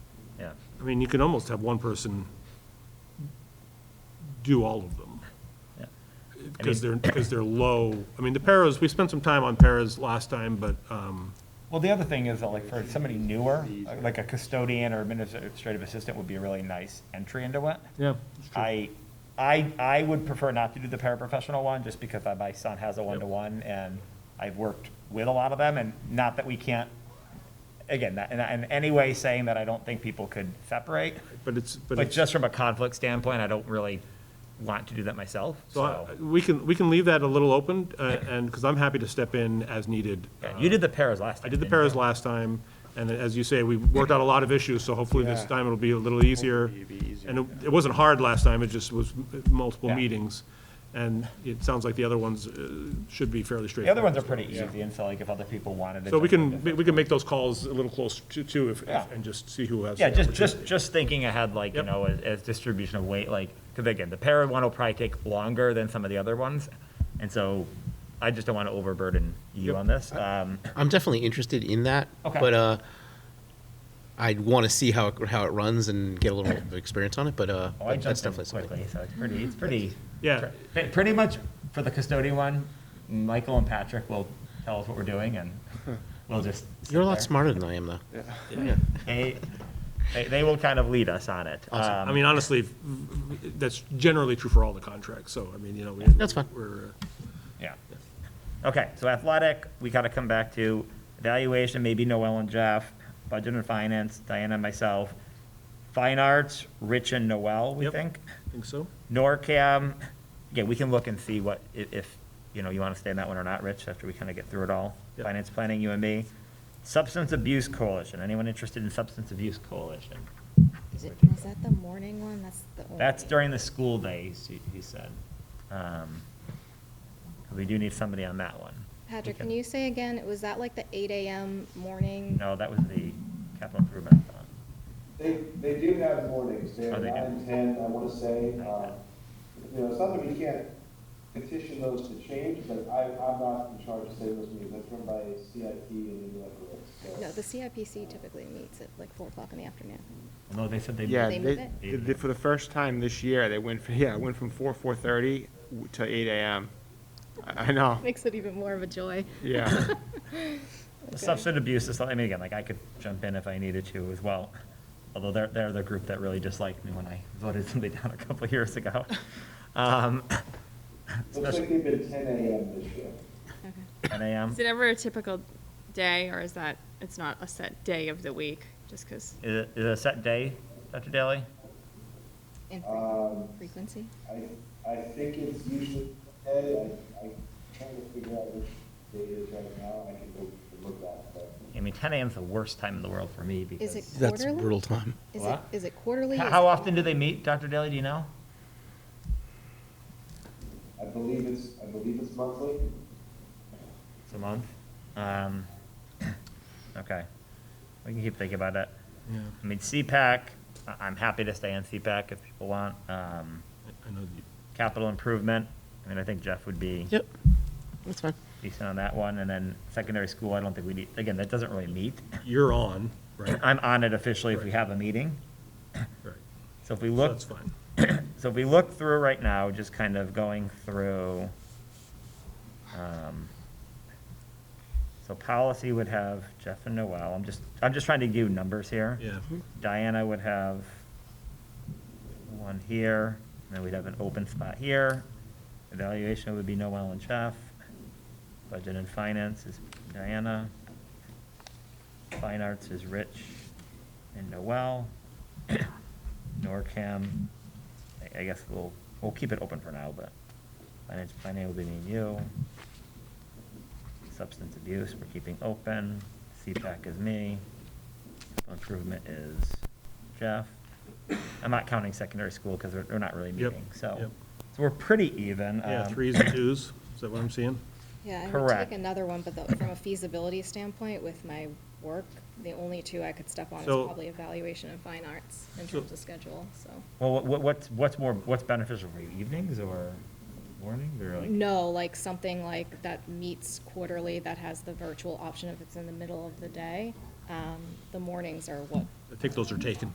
yeah. I mean, you can almost have one person do all of them. Yeah. Because they're, because they're low. I mean, the paras, we spent some time on paras last time, but, um, Well, the other thing is, that, like, for somebody newer, like a custodian or administrative assistant would be a really nice entry into it. yeah. I, I, I would prefer not to do the paraprofessional one, just because I- my son has a one-to-one, and I've worked with a lot of them, and not that we can't, again, not- in, in any way saying that I don't think people could separate, But it's, but but it's, just from a conflict standpoint, I don't really want to do that myself, so I- so. we can, we can leave that a little open, uh, and, because I'm happy to step in as needed. Yeah, You did the paras last time. I did the didn't you? paras last time, and as you say, we worked out a lot of issues, so hopefully this Yeah. time it'll be a little easier. Hopefully it'll be easier, And it- it wasn't hard last time, it just was multiple Yeah. meetings, and it sounds like the other ones uh, should be fairly The other straightforward. ones are pretty easy, and so like if other people wanted to. So we jump in can, different- we can make those calls a little close to, too, if, Yeah. and just see who has. Yeah, the just, opportunity. just, just thinking ahead, like, you Yep. know, as, as distribution of weight, like, because again, the para one will probably take longer than some of the other ones. And so I just don't want to overburden you Yep. on this. Um, I'm definitely interested in that. Okay. But uh, I'd want to see how it, how it runs and get a little bit of experience on it. But uh, oh, I that's jumped in definitely something. quickly, so it's pretty, it's pretty. Yeah. pre- Pretty much for the custodian one, Michael and Patrick will tell us what we're doing and we'll just. sit You're a lot there. smarter than I am, though. They, they, they will kind of lead us on it. Um, I mean, honestly, v- v- that's generally true for all the contracts, so, I mean, you know. we- That's fine. We're, uh, Yeah. Okay, so athletic, we gotta come back to evaluation, maybe Noel and Jeff, budget and finance, Diana and myself. Fine arts, Rich and Noel, we Yep. think. think so? NORCAM, yeah, we can look and see what, i- if, you know, you wanna stay in that one or not, Rich, after we kinda get through it all. Yep. Finance planning, you and me. Substance abuse coalition, anyone interested in substance abuse coalition? Is it, is that the morning one? That's the only. That's during the school days, he, he said. Um, We do need somebody on that one. Patrick, Okay. can you say again, was that like the eight AM morning? No, that was the capital improvement fund. They, they do have mornings, they're Oh, they do. nine, ten, I wanna say, Okay. uh, um, you know, it's not that we can't petition those to change, but I, I'm not in charge of saying those meetings, that's run by CIP and Inlet Grove, so. No, the CIPC typically meets at like four o'clock in the afternoon. No, they said they. Yeah, They they, move it? they did- for the first time this year, they went, from- yeah, it went from four, four-thirty to eight AM. I I know, Makes it even more of a joy. yeah. Substance abuse is, something- I mean, again, like, I could jump in if I needed to as well. Although they're, they're the group that really disliked me when I voted somebody down a couple years ago. Um, Looks like they've been ten AM this year. Okay. Ten AM, Is it ever a typical day, or is that, it's not a set day of the week, just because? is it, is it a set day, Dr. Daly? In Um, frequency? I, I think it's usually, hey, I, I'm trying to figure out which day it is right now, I can look, look that, but. I mean, ten AM's the worst time in the world for me because. Is it That's quarterly? brutal time. Is it, What? is it quarterly? How Is how it- often do they meet, Dr. Daly, do you know? I believe it's, I believe it's monthly. It's a month. Um, okay. We can keep thinking about it. Yeah, I mean, CPAC, I- I'm happy to stay on CPAC if people want. Um, I- I know, you- Capital improvement, I mean, I think Jeff would be Yep. That's fine. decent on that one. And then secondary school, I don't think we need, again, that doesn't really meet. you're on, right, I'm on it officially if we have a meeting. right, So if we so look, that's fine. so if we look through right now, just kind of going through, um, so policy would have Jeff and Noel. I'm just, I'm just trying to give numbers here. Yeah, Diana would have one here, and then we'd have an open spot here. Evaluation would be Noel and Jeff. Budget and finance is Diana. Fine arts is Rich and Noel. NORCAM, I- I guess we'll, we'll keep it open for now, but finance planning will be me and you. Substance abuse, we're keeping open. CPAC is me. Improvement is Jeff. I'm not counting secondary school because they're, they're not really Yep, meeting, so. yep. So we're pretty even. yeah, um, threes and twos, is that what I'm seeing? Yeah, I would Correct. take another one, but the- from a feasibility standpoint with my work, the only two I could step on is So- probably evaluation and fine arts in So- terms of schedule, so. Well, what, what- what's, what's more, what's beneficial for you, evenings or mornings or like? No, like something like that meets quarterly, that has the virtual option if it's in the middle of the day. Um, The mornings are what I think those are taken.